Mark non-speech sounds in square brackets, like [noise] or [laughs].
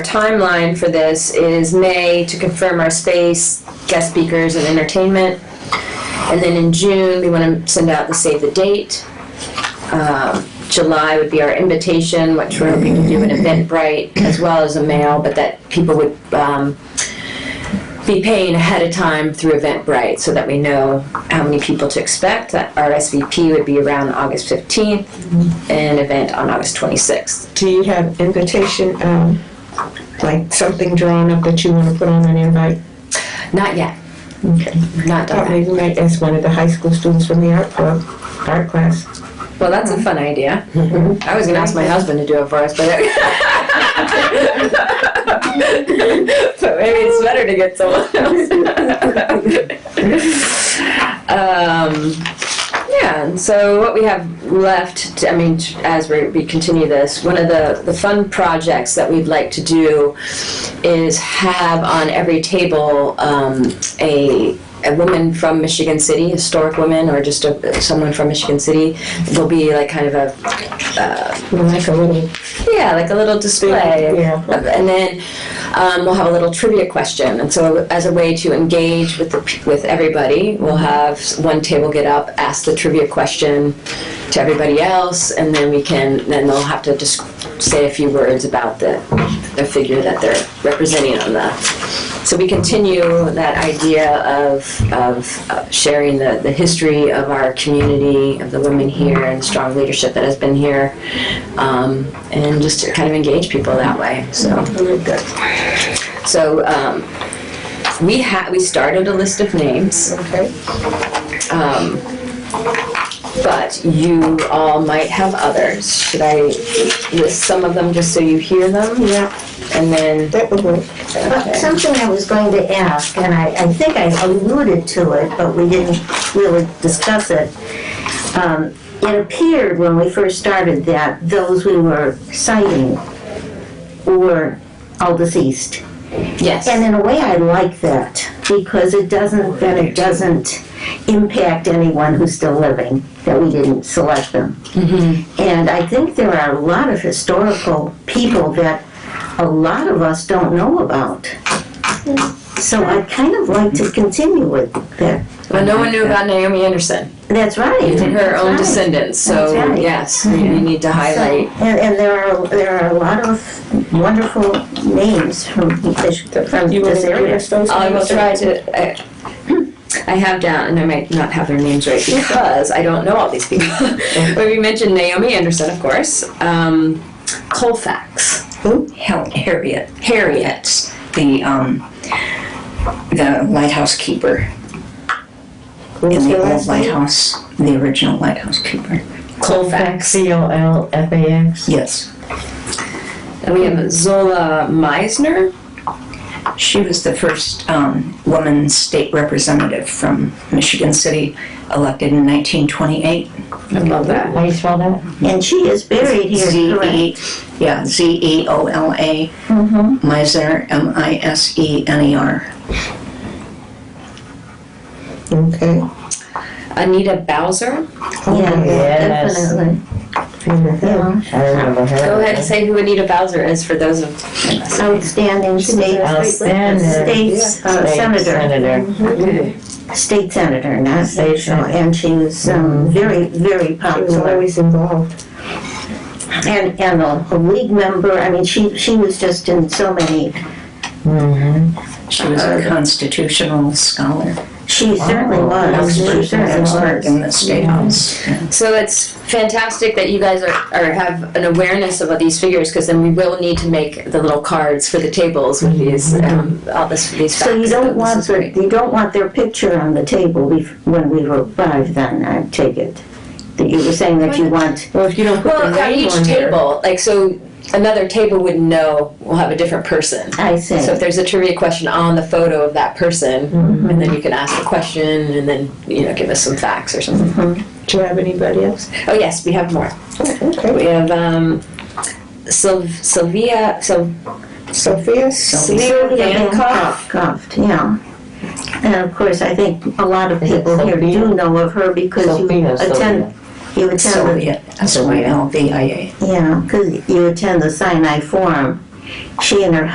timeline for this is May to confirm our space, guest speakers and entertainment. And then in June, we want to send out the save the date. Um, July would be our invitation, which we're hoping to do in Eventbrite as well as a mail, but that people would um, be paying ahead of time through Eventbrite so that we know how many people to expect. That RSVP would be around August 15th and event on August 26th. Do you have invitation, um, like something drawn up that you wanna put on an invite? Not yet, Okay. not done. Thought yet. maybe you might ask one of the high school students from the art club, art class. Well, that's a fun idea. I was gonna ask my husband to do it for us, but. [laughs] But maybe it's better to get someone else. [laughs] Um, yeah, and so what we have left, I mean, as we, we continue this, one of the, the fun projects that we'd like to do is have on every table um, a, a woman from Michigan City, historic woman, or just a, someone from Michigan City. There'll be like kind of a You know, Like a little, yeah, like a little display. Yeah. And then um, we'll have a little trivia question. And so, as a way to engage with the, p- with everybody, we'll have s- one table get up, ask the trivia question to everybody else, and then we can then they'll have to just say a few words about the the figure that they're representing on the. So we continue that idea of, of uh, sharing the, the history of our community, of the women here, and the strong leadership that has been here, um, and just to kind of engage people that way. So. So um, we had we started a list of names, okay? but you all might have others. Should I list some of them just so you hear them? Yeah, And then that would work. Well, okay. Something I was going to ask, and I, I think I alluded to it, but we didn't really discuss it. Um, It appeared when we first started that those we were citing were all deceased. yes, And in a way, I like that, because it doesn't, then it doesn't impact anyone who's still living, that we didn't select them. And I think there are a lot of historical people that a lot of us don't know about. So I'd kind of like to continue with that. but no one knew about Naomi Anderson That's right. and her that's own right. descendants. So That's right. yes, we we need to So- highlight. And, and there are, there are a lot of wonderful names from, from You wanna this give area. us those? Oh, I will names? try to. I, I have down, and I might not have their names right because I don't know all these [laughs] people. but we mentioned Naomi Anderson, of course. Um, Colfax. Hel- Harriet, Harriet. Harriet's the um, the lighthouse keeper in What's the your old last name? lighthouse, the original lighthouse keeper. Colfax. Yes, And we have Zola Meisner. she was the first um, woman state representative from Michigan City, elected in 1928. I love that. And she is buried Z here, correct? E, yeah, Z E O L A, Mm-hmm. Meisner, M I S E N E R. Okay. Oh, Anita Bowser. Yeah, Yes. definitely. Mhm. I remember her. Go ahead and say who Anita Bowser is for those of us. Outstanding state, Outstanding. state uh, State senator, Senator. state senator, not State national. senator. And she was um, very, very She was popular. always involved. And, and a a league member, I mean, she, she was just in so many, She was Uh-huh. a constitutional scholar, she certainly was, she certainly expert was. in the state house. So it's fantastic that you guys are, are have an awareness of all these figures because then we will need to make the little cards for the tables with these um, all this these facts. Mm-hmm. So you This don't is want, their- great. you don't want their picture on the table bef- when we arrive then, I take it? That you were saying that you want, Well, if you don't put the Well, at name each on there. table, like so, another table wouldn't know. We'll have a different person. I see. So if there's a trivia question on the photo of that person, and then you can ask the question, and then you know give us some facts or something. Do you have anybody else? Oh yes, we have more. Okay. We have um, Syl- Sylvia Syl- Sophia? Sylvia Dankoff. Coughed, yeah. And of course, I think a lot of people here do know of her because you Sophia, Sophia. attend, you attend, Sylvia, S Y L V I A. the- yeah, because you attend the Sinai Forum. She and her